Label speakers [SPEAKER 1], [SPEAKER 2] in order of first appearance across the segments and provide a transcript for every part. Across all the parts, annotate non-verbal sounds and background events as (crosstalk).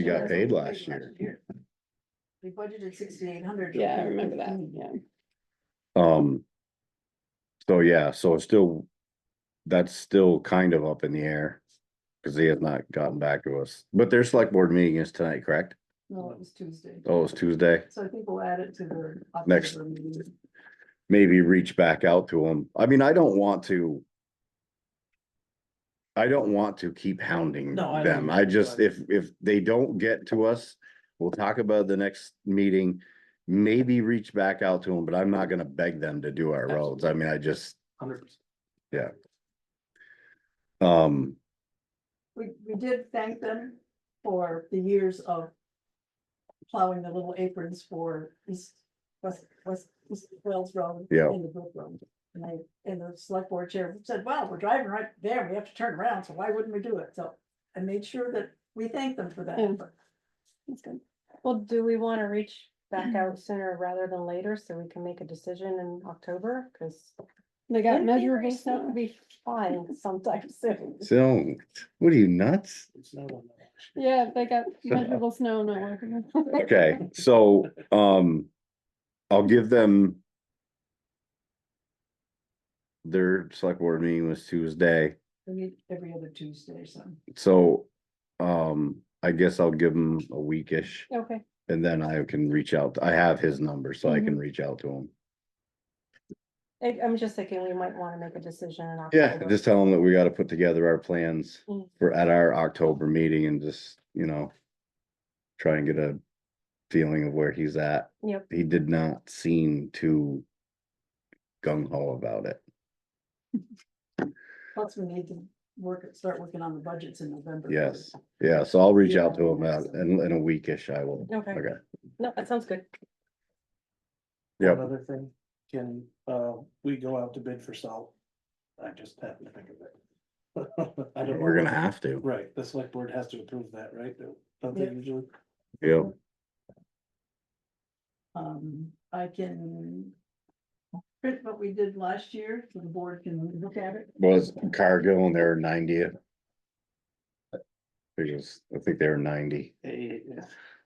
[SPEAKER 1] You got paid last year.
[SPEAKER 2] We budgeted sixty-eight hundred.
[SPEAKER 3] Yeah, I remember that, yeah.
[SPEAKER 1] Um. So yeah, so it's still, that's still kind of up in the air. Cause he has not gotten back to us, but their select board meeting is tonight, correct?
[SPEAKER 2] No, it was Tuesday.
[SPEAKER 1] Oh, it's Tuesday.
[SPEAKER 2] So I think we'll add it to the.
[SPEAKER 1] Next.
[SPEAKER 2] October meeting.
[SPEAKER 1] Maybe reach back out to him. I mean, I don't want to. I don't want to keep hounding
[SPEAKER 4] No, I don't
[SPEAKER 1] them.
[SPEAKER 4] either,
[SPEAKER 1] I just,
[SPEAKER 4] but-
[SPEAKER 1] if, if they don't get to us, we'll talk about it the next meeting. Maybe reach back out to them, but I'm not gonna beg them to do our roads. I mean, I just,
[SPEAKER 4] Hundred percent.
[SPEAKER 1] um.
[SPEAKER 2] We, we did thank them for the years of plowing the little aprons for East, West, West, East Wells Road.
[SPEAKER 1] Yeah.
[SPEAKER 2] And the Brook Road. And I, and the select board chair said, well, we're driving right there, we have to turn around, so why wouldn't we do it? So I made sure that we thanked them for that.
[SPEAKER 3] Yeah.
[SPEAKER 2] effort.
[SPEAKER 3] That's good.
[SPEAKER 5] Well, do we wanna reach
[SPEAKER 3] Mm-hmm.
[SPEAKER 5] back out sooner rather than later so we can make a decision in October? Cause.
[SPEAKER 3] They got
[SPEAKER 5] wouldn't it be
[SPEAKER 3] measurable
[SPEAKER 5] nice not to
[SPEAKER 3] stuff.
[SPEAKER 5] Be fine (laughs) sometime soon.
[SPEAKER 1] So, what are you nuts?
[SPEAKER 4] It's not on that.
[SPEAKER 3] Yeah, they
[SPEAKER 1] (laughs)
[SPEAKER 3] got measurable snow, no working.
[SPEAKER 1] Okay, so, um, I'll give them. Their select board meeting was Tuesday,
[SPEAKER 2] We meet every other Tuesday or something.
[SPEAKER 1] so, um, I guess I'll give them a weekish.
[SPEAKER 3] Okay,
[SPEAKER 1] And then I can reach out, I have his number, so I can reach out to him.
[SPEAKER 5] I, I'm just thinking we might wanna make a decision in
[SPEAKER 1] Yeah,
[SPEAKER 5] October.
[SPEAKER 1] just tell him that we gotta put together our plans
[SPEAKER 3] Mm.
[SPEAKER 1] for, at our October meeting and just, you know. Try and get a feeling of where he's at.
[SPEAKER 5] Yep.
[SPEAKER 1] He did not seem too gung ho about it.
[SPEAKER 2] Plus, we need to work, start working on the budgets in November.
[SPEAKER 1] Yes, yeah, so I'll reach
[SPEAKER 2] Yeah,
[SPEAKER 1] out to him
[SPEAKER 2] that's-
[SPEAKER 1] out in, in a weekish, I will.
[SPEAKER 5] Okay. No, that sounds good.
[SPEAKER 1] Yep.
[SPEAKER 4] Another thing, can, uh, we go out to bid for salt? I just happened to think of it. (laughs) I don't.
[SPEAKER 1] We're
[SPEAKER 4] know.
[SPEAKER 1] gonna have to,
[SPEAKER 4] Right, the select board has to approve that, right? Don't
[SPEAKER 2] Yeah.
[SPEAKER 4] they usually?
[SPEAKER 1] yep.
[SPEAKER 2] Um, I can print what we did last year, so the board can look at it.
[SPEAKER 1] Was Cargill and they're ninety. They just, I think they were ninety.
[SPEAKER 4] Hey,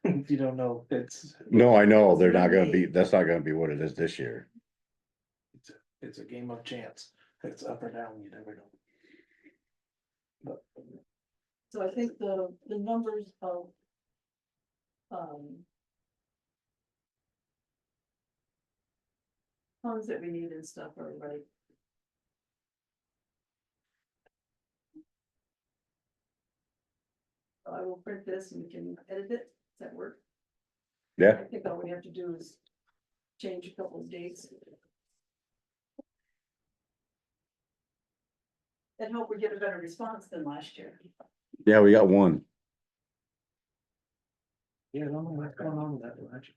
[SPEAKER 4] if you don't know, it's,
[SPEAKER 1] No, I know, they're not gonna be, that's not gonna be what it is this year.
[SPEAKER 4] it's a game of chance. It's up or down, you never know. But
[SPEAKER 2] So I think the, the numbers of um funds that we need and stuff are right. So I will print this and we can edit it. Does that work?
[SPEAKER 1] Yeah,
[SPEAKER 2] I think all we have to do is change a couple of dates. And hope we get a better response than last year.
[SPEAKER 1] yeah, we got one.
[SPEAKER 4] Yeah, I don't know what's going on with that one, actually.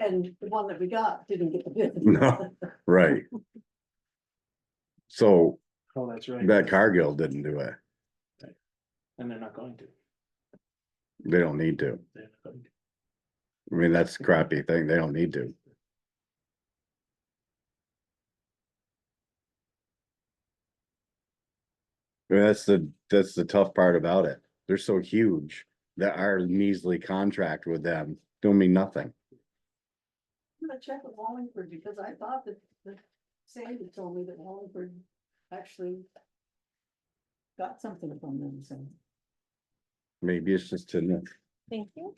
[SPEAKER 2] And the one that we got didn't get the bid.
[SPEAKER 1] No. Right. So
[SPEAKER 4] Oh, that's right.
[SPEAKER 1] that Cargill didn't do it.
[SPEAKER 4] And they're not going to.
[SPEAKER 1] They don't need to.
[SPEAKER 4] They're not going to.
[SPEAKER 1] I mean, that's a crappy thing. They don't need to. I mean, That's the, that's the tough part about it. They're so huge that our measly contract with them don't mean nothing.
[SPEAKER 2] I'm gonna check with Wallingford because I thought that, that Sandy told me that Wallingford actually got something from them, so.
[SPEAKER 1] Maybe it's just to,
[SPEAKER 5] Thank you.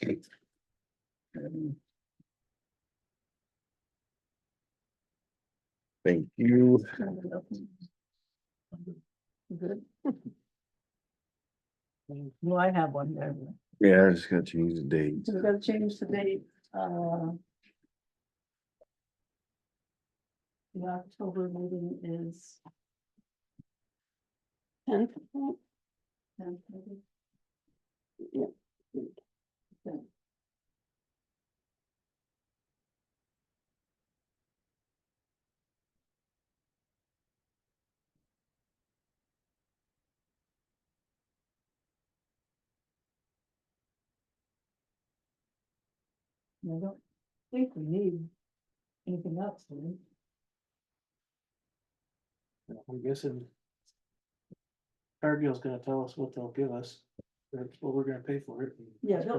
[SPEAKER 1] thank you.
[SPEAKER 2] Good. (laughs) Well, I have one there.
[SPEAKER 1] Yeah, I just gotta change the date.
[SPEAKER 2] So we're gonna change the date, uh. The October meeting is.
[SPEAKER 3] ten,
[SPEAKER 2] tenth, maybe?
[SPEAKER 3] Yep.
[SPEAKER 2] Okay. And I don't think we need anything else, do we?
[SPEAKER 4] I'm guessing. Cargill's gonna tell us what they'll give us.
[SPEAKER 6] That's what we're gonna pay for it.
[SPEAKER 4] Yeah, they'll-